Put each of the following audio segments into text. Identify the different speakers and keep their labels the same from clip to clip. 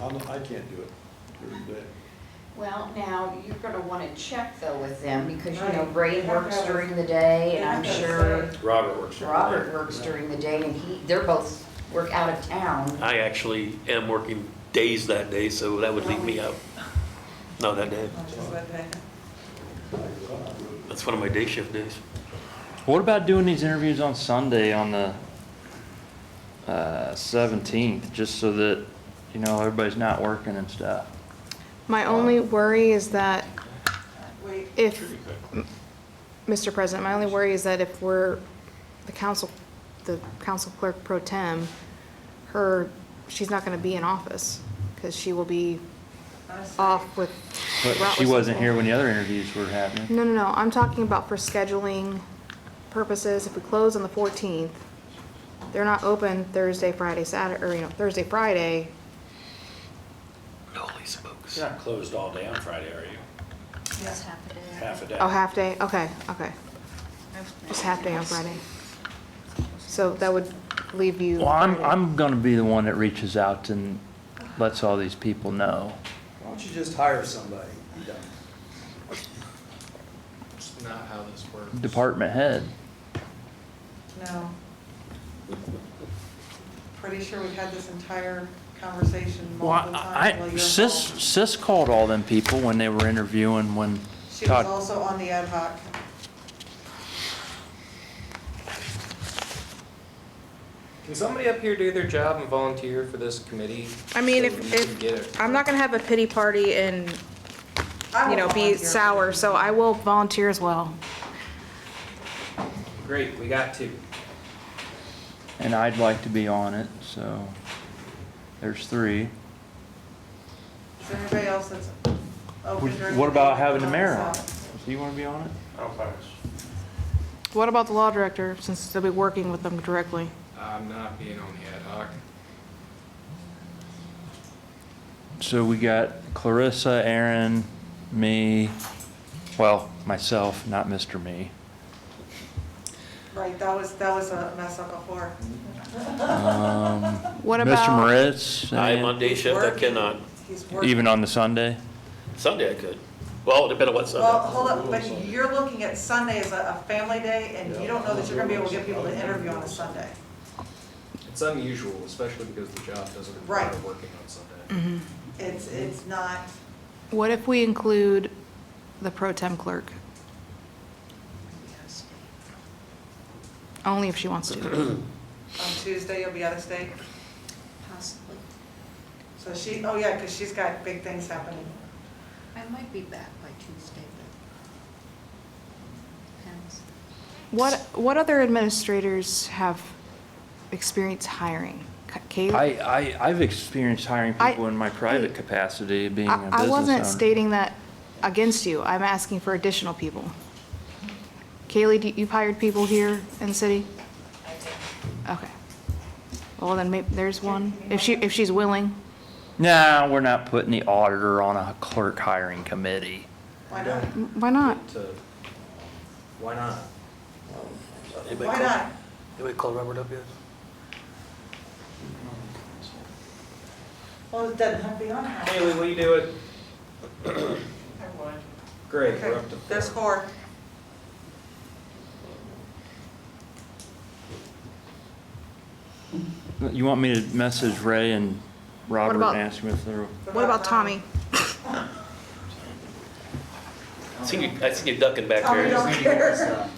Speaker 1: I'm, I can't do it during the day.
Speaker 2: Well, now, you're gonna wanna check though with them, because you know,
Speaker 3: Right.
Speaker 2: Ray works during the day, and I'm
Speaker 3: Yeah, that's
Speaker 2: sure
Speaker 3: right.
Speaker 4: Robert works during the day.
Speaker 2: Robert works during the day, and he, they're both work out of town.
Speaker 4: I actually am working days that day, so that would leave me out. No, that day.
Speaker 3: Which is what they-
Speaker 4: That's one of my day shift days.
Speaker 5: What about doing these interviews on Sunday on the uh, seventeenth, just so that, you know, everybody's not working and stuff?
Speaker 6: My only worry is that
Speaker 3: Wait,
Speaker 6: if, Mr. President, my only worry is that if we're, the council, the council clerk pro tem, her, she's not gonna be in office, because she will be
Speaker 3: I see.
Speaker 6: off with.
Speaker 5: But
Speaker 6: route
Speaker 5: she wasn't
Speaker 6: recycle.
Speaker 5: here when the other interviews were happening.
Speaker 6: No, no, no, I'm talking about for scheduling purposes, if we close on the fourteenth, they're not open Thursday, Friday, Saturday, or, you know, Thursday, Friday,
Speaker 4: Holy smokes.
Speaker 7: You're not closed all day on Friday, are you?
Speaker 3: Yeah.
Speaker 7: Half a day?
Speaker 6: oh, half day, okay, okay, just half day on Friday. So that would leave you.
Speaker 5: Well, I'm,
Speaker 6: Friday.
Speaker 5: I'm gonna be the one that reaches out and lets all these people know.
Speaker 1: Why don't you just hire somebody? Be done.
Speaker 8: It's not how this works.
Speaker 5: Department head.
Speaker 3: No. Pretty sure we've had this entire conversation
Speaker 5: Well,
Speaker 3: multiple
Speaker 5: I,
Speaker 3: times while
Speaker 5: I-
Speaker 3: you're
Speaker 5: Sis,
Speaker 3: involved.
Speaker 5: Sis called all them people when they were interviewing, when
Speaker 3: She was
Speaker 5: Todd,
Speaker 3: also on the ad hoc.
Speaker 8: Can somebody up here do their job and volunteer for this committee?
Speaker 6: I mean,
Speaker 8: so
Speaker 6: if,
Speaker 8: we can get it?
Speaker 6: if, I'm not gonna have a pity party and,
Speaker 3: I
Speaker 6: you know,
Speaker 3: will
Speaker 6: be
Speaker 3: volunteer.
Speaker 6: sour, so I will volunteer as well.
Speaker 8: Great, we got two.
Speaker 5: and I'd like to be on it, so there's three.
Speaker 3: Is there anybody else that's open during the
Speaker 5: What
Speaker 3: day
Speaker 5: about
Speaker 3: that
Speaker 5: having the
Speaker 3: can
Speaker 5: mayor on?
Speaker 3: help
Speaker 5: it?
Speaker 3: us
Speaker 5: Do you wanna be on it?
Speaker 6: What about the law director, since they'll be working with them directly?
Speaker 8: I'm not being on the ad hoc.
Speaker 5: So we got Clarissa, Aaron, me, well, myself, not Mr.
Speaker 3: out?
Speaker 5: Me.
Speaker 3: Right, that was, that was a mess up before.
Speaker 6: What
Speaker 5: Mr.
Speaker 6: about,
Speaker 5: Moritz,
Speaker 4: I am on
Speaker 5: and
Speaker 4: day shift, I
Speaker 3: Working.
Speaker 4: cannot.
Speaker 3: He's working.
Speaker 5: even on the Sunday?
Speaker 4: Sunday I could. Well, depending on what
Speaker 3: Well,
Speaker 4: Sunday.
Speaker 3: hold up, but you're looking at Sunday as a, a family day, and you don't know that you're gonna be able to get people to interview on a Sunday.
Speaker 8: It's unusual, especially because the job doesn't require
Speaker 3: Right.
Speaker 8: working on Sunday.
Speaker 3: It's, it's not,
Speaker 6: what if we include the pro tem clerk? Only if she wants to.
Speaker 3: on Tuesday, you'll be out of state.
Speaker 9: Possibly.
Speaker 3: So she, oh yeah, because she's got big things happening.
Speaker 9: I might be back by Tuesday, but depends.
Speaker 6: What, what other administrators have experience hiring? Ca- Caleb?
Speaker 5: I, I, I've experienced hiring
Speaker 6: I-
Speaker 5: people in my private capacity, being a
Speaker 6: I
Speaker 5: business
Speaker 6: I
Speaker 5: owner.
Speaker 6: wasn't stating that against you. I'm asking for additional people. Kaylee, do- you've hired people here in the city? Okay. Well, then maybe, there's one, if she, if she's willing.
Speaker 5: Nah, we're not putting the auditor on a clerk hiring committee.
Speaker 3: Why not?
Speaker 6: Why not?
Speaker 8: To- Why not?
Speaker 4: Anybody
Speaker 3: Why
Speaker 4: call-
Speaker 3: not?
Speaker 4: Anybody call Robert up yet?
Speaker 3: Well, it doesn't have to be on. her.
Speaker 8: Haley, will you do it? Great, we're
Speaker 3: Okay,
Speaker 8: up to
Speaker 3: there's
Speaker 8: four.
Speaker 3: four.
Speaker 5: You want me to message Ray and Robert
Speaker 6: about-
Speaker 5: and ask them if they're,
Speaker 6: What about Tommy?
Speaker 4: I see you, I see you ducking back
Speaker 3: Tommy
Speaker 4: there.
Speaker 3: don't care.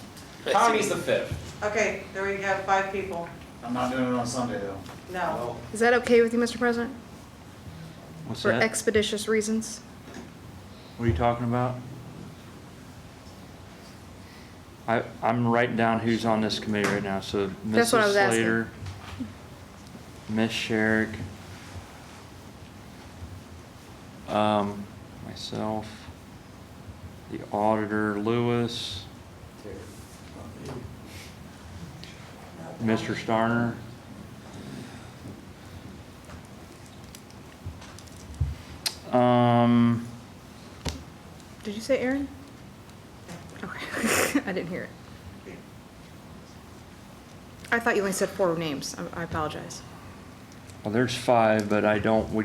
Speaker 8: Tommy's the fifth.
Speaker 3: Okay, there we have five people.
Speaker 10: I'm not doing it on Sunday though.
Speaker 3: No.
Speaker 6: Is that okay with you, Mr. President?
Speaker 5: what's
Speaker 6: For
Speaker 5: that?
Speaker 6: expeditious reasons?
Speaker 5: What are you talking about? I, I'm writing down who's on this committee right now, so
Speaker 6: That's what I
Speaker 5: Mrs.
Speaker 6: was asking.
Speaker 5: Slater, Miss Sherrick, um, myself, the auditor, Lewis, Mr. Starner. Um,
Speaker 6: Did you say Aaron? Okay, I didn't hear it. I thought you only said four names. I- I apologize.
Speaker 5: well, there's five, but I don't, we